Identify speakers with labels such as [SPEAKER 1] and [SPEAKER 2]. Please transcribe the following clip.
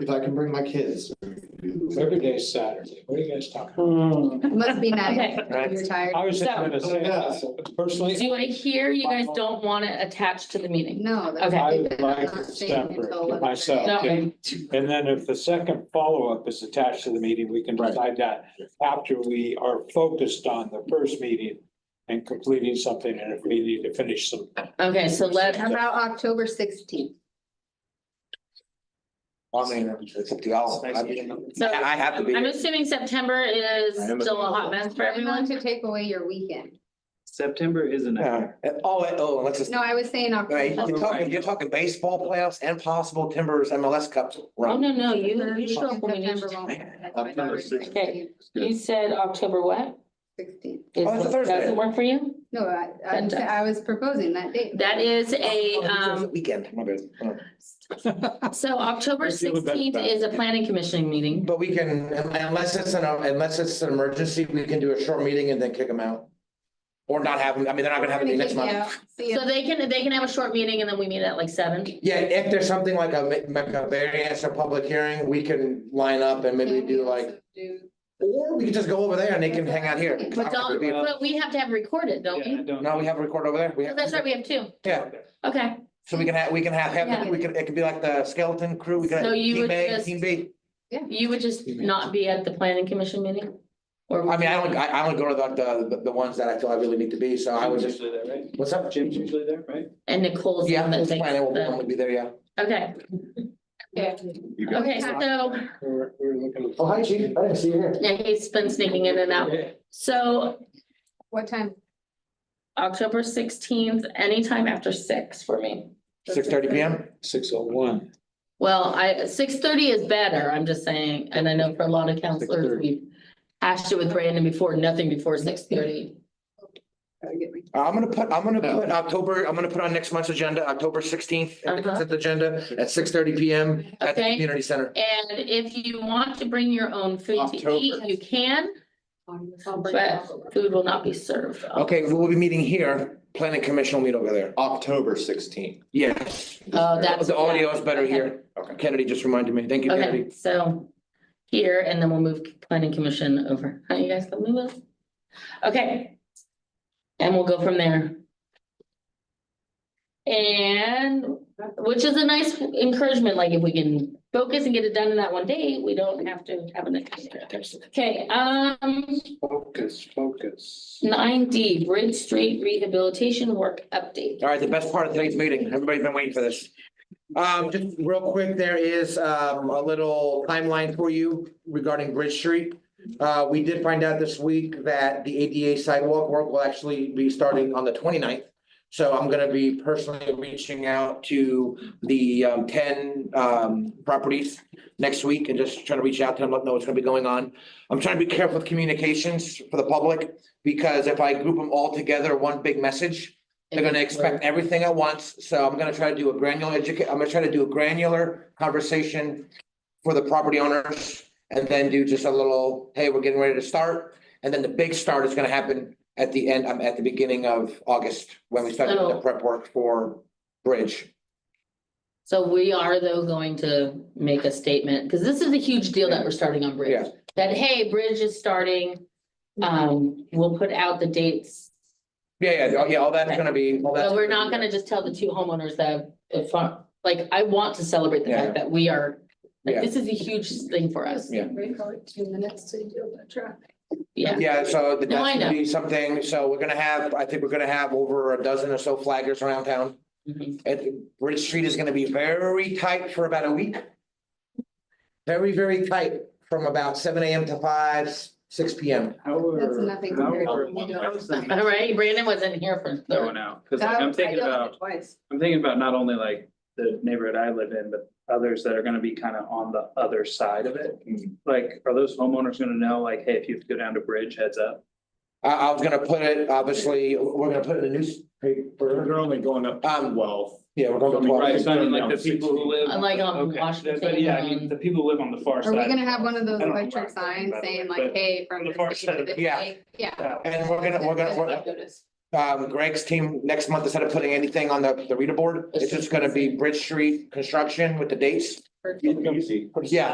[SPEAKER 1] if I can bring my kids. I
[SPEAKER 2] Every day is Saturday. What are you guys talking
[SPEAKER 3] Mm.
[SPEAKER 4] Must be nice.
[SPEAKER 3] Okay.
[SPEAKER 4] You're tired.
[SPEAKER 2] about? I was just
[SPEAKER 3] So-
[SPEAKER 2] gonna say, personally,
[SPEAKER 3] Do I hear you guys don't want it attached to the meeting?
[SPEAKER 4] No. that's-
[SPEAKER 3] Okay.
[SPEAKER 2] I would like
[SPEAKER 4] I'm
[SPEAKER 2] it
[SPEAKER 4] not staying
[SPEAKER 2] separate
[SPEAKER 4] until
[SPEAKER 2] to
[SPEAKER 4] 11:30.
[SPEAKER 2] myself.
[SPEAKER 3] No, okay.
[SPEAKER 2] And then if the second follow-up is attached to the meeting, we can
[SPEAKER 1] Right.
[SPEAKER 2] decide that after we are focused on the first meeting and completing something, and if we need to finish some,
[SPEAKER 3] Okay, so let,
[SPEAKER 4] How about October sixteenth?
[SPEAKER 5] mean, it's up to y'all. I mean,
[SPEAKER 3] so.
[SPEAKER 5] I have to be.
[SPEAKER 3] I'm assuming September is
[SPEAKER 5] I am
[SPEAKER 3] still a hot mess for everyone.
[SPEAKER 4] To take away your weekend.
[SPEAKER 6] September is a
[SPEAKER 5] Yeah.
[SPEAKER 6] nightmare.
[SPEAKER 5] And- Oh, and- oh, and let's just,
[SPEAKER 4] No, I was saying
[SPEAKER 5] right,
[SPEAKER 4] October.
[SPEAKER 5] you're talking, you're talking baseball playoffs and possible Timbers MLS Cup
[SPEAKER 3] Oh,
[SPEAKER 5] run.
[SPEAKER 3] no, no, you, you show up when we need
[SPEAKER 4] September
[SPEAKER 3] you.
[SPEAKER 4] won't- that's my
[SPEAKER 6] October
[SPEAKER 4] daughter's
[SPEAKER 6] 16th.
[SPEAKER 4] birthday,
[SPEAKER 3] You said October what?
[SPEAKER 4] 16th.
[SPEAKER 3] Is-
[SPEAKER 5] Oh, it's a Thursday.
[SPEAKER 3] Doesn't work for you?
[SPEAKER 4] No, I, I'm
[SPEAKER 3] That
[SPEAKER 4] sa-
[SPEAKER 3] does.
[SPEAKER 4] I was proposing that date.
[SPEAKER 3] That is a,
[SPEAKER 5] Oh, it's a
[SPEAKER 3] um,
[SPEAKER 5] Weekend, my bad. Uh,
[SPEAKER 3] so October
[SPEAKER 2] Let's see what that's
[SPEAKER 3] sixteenth
[SPEAKER 2] about.
[SPEAKER 3] is a planning commission meeting.
[SPEAKER 5] But we can, unless it's an, unless it's an emergency, we can do a short meeting and then kick them out. Or not have them, I mean, they're not gonna have
[SPEAKER 4] We're
[SPEAKER 5] any
[SPEAKER 4] gonna
[SPEAKER 5] next
[SPEAKER 4] kick
[SPEAKER 5] month.
[SPEAKER 4] you out. See
[SPEAKER 3] So
[SPEAKER 4] ya.
[SPEAKER 3] they can, they can have a short meeting and then we meet at like seven.
[SPEAKER 5] Yeah, if there's something like a, like a variance or public hearing, we can line up and maybe
[SPEAKER 4] Can we
[SPEAKER 5] do like,
[SPEAKER 4] also do-
[SPEAKER 5] or we can just go over there and they can hang out here.
[SPEAKER 3] But don't, but we have to have recorded, don't
[SPEAKER 6] Yeah, I
[SPEAKER 3] we?
[SPEAKER 6] don't.
[SPEAKER 5] No, we have a record over there. We
[SPEAKER 3] Oh, That's
[SPEAKER 5] have,
[SPEAKER 3] right, we have two.
[SPEAKER 5] yeah,
[SPEAKER 3] Okay,
[SPEAKER 5] so we can have, we can have, have, we can, it could be like the skeleton crew, we can.
[SPEAKER 3] So you
[SPEAKER 5] Team
[SPEAKER 3] would
[SPEAKER 5] A,
[SPEAKER 3] just-
[SPEAKER 5] Team B.
[SPEAKER 3] you would just
[SPEAKER 5] You may-
[SPEAKER 3] not be at the planning commission meeting? Or?
[SPEAKER 5] I mean, I don't, I, I only go to the, the, the ones that I feel I really need to be, so I would
[SPEAKER 6] Jim's
[SPEAKER 5] just,
[SPEAKER 6] Usually there, right?
[SPEAKER 5] what's up, Jim?
[SPEAKER 6] Jim's usually there, right?
[SPEAKER 3] And Nicole's.
[SPEAKER 5] Yeah,
[SPEAKER 3] the
[SPEAKER 5] that's
[SPEAKER 3] thing.
[SPEAKER 5] fine, I will, I will be there, yeah.
[SPEAKER 3] Okay, okay, so,
[SPEAKER 2] we're, we're looking.
[SPEAKER 5] Oh, hi, chief, I didn't see you here.
[SPEAKER 3] yeah, he's been sneaking in and out. So
[SPEAKER 4] What time?
[SPEAKER 3] October sixteenth, anytime after six for me.
[SPEAKER 5] Six thirty P M?
[SPEAKER 2] Six oh one.
[SPEAKER 3] Well, I, six thirty is better, I'm just saying, and I know for a lot of counselors,
[SPEAKER 2] 6:30.
[SPEAKER 3] we've hashed it with Brandon before, nothing before six thirty.
[SPEAKER 4] Gotta get my-
[SPEAKER 5] Uh, I'm gonna put, I'm gonna
[SPEAKER 2] No.
[SPEAKER 5] put October, I'm gonna put on next month's agenda, October sixteenth,
[SPEAKER 3] Uh-huh.
[SPEAKER 5] the consent agenda at six thirty P M at the
[SPEAKER 3] Okay.
[SPEAKER 5] community center.
[SPEAKER 3] And if you want to bring your own food to eat,
[SPEAKER 4] October.
[SPEAKER 3] you can,
[SPEAKER 4] I'll bring it
[SPEAKER 3] but
[SPEAKER 4] up.
[SPEAKER 3] food will not be served.
[SPEAKER 5] Okay, we will be meeting here, planning commission will meet over there.
[SPEAKER 1] October sixteenth.
[SPEAKER 5] Yes.
[SPEAKER 3] Oh, that's.
[SPEAKER 5] The audio is better
[SPEAKER 3] Okay.
[SPEAKER 5] here. Kennedy just reminded me. Thank you, Kennedy.
[SPEAKER 3] Okay, so here, and then we'll move planning commission over. How you guys gonna move us? Okay. And we'll go from there. And, which is a nice encouragement, like if we can focus and get it done in that one day, we don't have to have an extra. Okay, um,
[SPEAKER 2] Focus, focus.
[SPEAKER 3] nine D, Bridge Street Rehabilitation Work Update.
[SPEAKER 5] All right, the best part of today's meeting. Everybody's been waiting for this. Um, just real quick, there is um a little timeline for you regarding Bridge Street. Uh, we did find out this week that the ADA sidewalk work will actually be starting on the 29th. So I'm gonna be personally reaching out to the um ten um properties next week and just trying to reach out to them, let them know what's gonna be going on. I'm trying to be careful with communications for the public, because if I group them all together, one big message, they're gonna expect everything at once, so I'm gonna try to do a granular educa- I'm gonna try to do a granular conversation for the property owners and then do just a little, hey, we're getting ready to start. And then the big start is gonna happen at the end, um, at the beginning of August, when we start doing the
[SPEAKER 3] So-
[SPEAKER 5] prep work for bridge.
[SPEAKER 3] So we are though going to make a statement, because this is a huge deal that we're starting on Bridge.
[SPEAKER 5] Yeah.
[SPEAKER 3] That, hey, Bridge is starting, um, we'll put out the dates.
[SPEAKER 5] Yeah, yeah, oh, yeah, all that's gonna be, all Oh, that's.
[SPEAKER 3] But we're not gonna just tell the two homeowners that, if, uh, like, I want to celebrate the fact that we are, like,
[SPEAKER 5] Yeah.
[SPEAKER 3] this is a huge thing for us.
[SPEAKER 5] Yeah.
[SPEAKER 4] Break all it two minutes to do the traffic.
[SPEAKER 3] Yeah,
[SPEAKER 5] Yeah, so that's
[SPEAKER 3] No, I
[SPEAKER 5] gonna
[SPEAKER 3] know.
[SPEAKER 5] be something, so we're gonna have, I think we're gonna have over a dozen or so flaggers around town.
[SPEAKER 3] Mhm.
[SPEAKER 5] It, Bridge Street is gonna be very tight for about a week. Very, very tight from about seven AM to five, six PM.
[SPEAKER 6] However.
[SPEAKER 4] That's nothing compared to
[SPEAKER 6] However.
[SPEAKER 4] what we do.
[SPEAKER 3] all right, Brandon wasn't here for.
[SPEAKER 6] That one out, because I'm
[SPEAKER 4] That- I
[SPEAKER 6] thinking
[SPEAKER 4] yelled at
[SPEAKER 6] about.
[SPEAKER 4] it Twice.
[SPEAKER 6] I'm thinking about not only like the neighborhood I live in, but others that are gonna be kind of on the other side of it.
[SPEAKER 5] Mhm.
[SPEAKER 6] Like, are those homeowners gonna know, like, hey, if you have to go down to Bridge, heads up?
[SPEAKER 5] I, I was gonna put it, obviously, we're gonna put it in the newspaper.
[SPEAKER 7] They're only going up to
[SPEAKER 5] Um,
[SPEAKER 7] twelve.
[SPEAKER 5] Yeah, we're going to.
[SPEAKER 6] Right,
[SPEAKER 5] twelve.
[SPEAKER 6] so I mean, like the people who live.
[SPEAKER 3] Uh, like on
[SPEAKER 6] Okay,
[SPEAKER 3] Washington
[SPEAKER 6] But yeah, I
[SPEAKER 3] and-
[SPEAKER 6] mean, the people who live on the far
[SPEAKER 4] um, Are
[SPEAKER 6] side.
[SPEAKER 4] we gonna have one of those
[SPEAKER 6] I don't know
[SPEAKER 4] electric
[SPEAKER 6] where I'm
[SPEAKER 4] signs
[SPEAKER 6] going, by the way,
[SPEAKER 4] saying like,
[SPEAKER 6] but
[SPEAKER 4] hey, from
[SPEAKER 6] on the
[SPEAKER 4] this
[SPEAKER 6] far
[SPEAKER 4] day
[SPEAKER 6] side
[SPEAKER 4] to
[SPEAKER 6] of-
[SPEAKER 4] this
[SPEAKER 5] yeah.
[SPEAKER 4] day? Yeah.
[SPEAKER 5] And we're gonna, we're gonna, we're, um, Greg's team, next month, instead of putting anything on the, the reader board, it's just gonna be Bridge Street construction with the dates.
[SPEAKER 8] Or-
[SPEAKER 9] Easy.
[SPEAKER 2] Yeah,